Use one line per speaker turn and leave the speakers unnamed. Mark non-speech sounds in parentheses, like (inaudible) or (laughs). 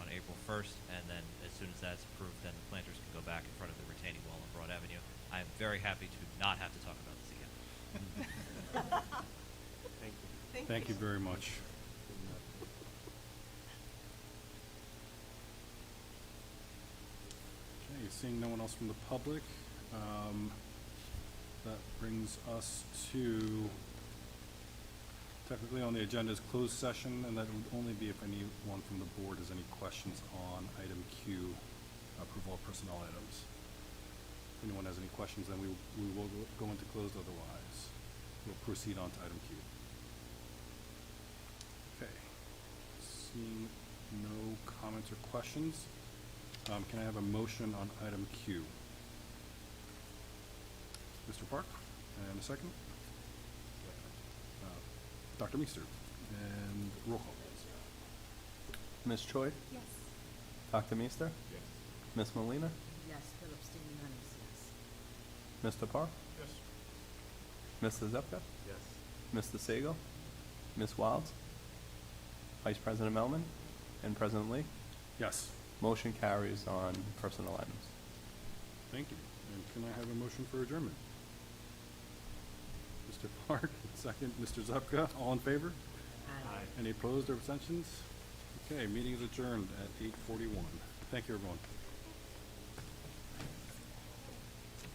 first, and then as soon as that's approved, then the planters can go back in front of the retaining wall on Broad Avenue. I am very happy to not have to talk about this again.
Thank you.
Thank you very much. Okay, seeing no one else from the public, um, that brings us to technically on the agenda is closed session, and that would only be if anyone from the board has any questions on item Q, approval of personnel items. If anyone has any questions, then we, we will go- go into closed otherwise. We'll proceed on to item Q. Okay, seeing no comments or questions, um, can I have a motion on item Q? Mr. Park, and a second? Uh, Dr. Meester, and roll call.
Ms. Choi?
Yes.
Dr. Meester?
Yes.
Ms. Molina?
Yes, Phillips, Stevens, Hunter, yes.
Mr. Park?
Yes.
Mr. Zepka?
Yes.
Mr. Segal? Ms. Wilds? Vice President Melman? And President Lee?
Yes,
Motion carries on personal items.
thank you. And can I have a motion for adjournment? Mr. (laughs) Park, second, Mr. Zupka, all in favor?
Aye.
Any opposed or abstentions? Okay, meeting is adjourned at eight forty-one. Thank you, everyone.